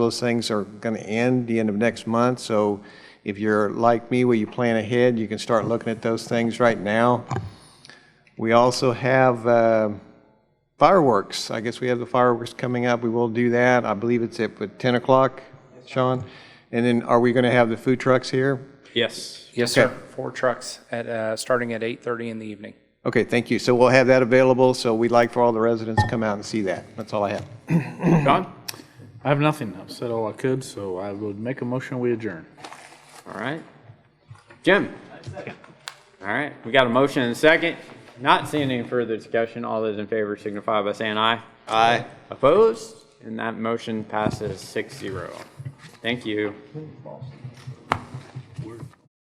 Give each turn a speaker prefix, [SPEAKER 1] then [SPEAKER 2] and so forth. [SPEAKER 1] Those things are going to end the end of next month, so if you're like me, where you plan ahead, you can start looking at those things right now. We also have uh, fireworks. I guess we have the fireworks coming up. We will do that. I believe it's at what, 10 o'clock, Sean? And then are we going to have the food trucks here?
[SPEAKER 2] Yes.
[SPEAKER 3] Yes,
[SPEAKER 1] Okay.
[SPEAKER 3] sir. Four trucks at, uh, starting at 8:30 in the evening.
[SPEAKER 1] Okay, thank you. So we'll have that available, so we'd like for all the residents to come out and see that. That's all I have.
[SPEAKER 2] John?
[SPEAKER 4] I have nothing. I've said all I could, so I would make a motion, we adjourn.
[SPEAKER 2] All right. Jim? All right, we got a motion and a second. Not seeing any further discussion, all those in favor signify by saying aye.
[SPEAKER 1] Aye.
[SPEAKER 2] Opposed? And that motion passes six zero. Thank you.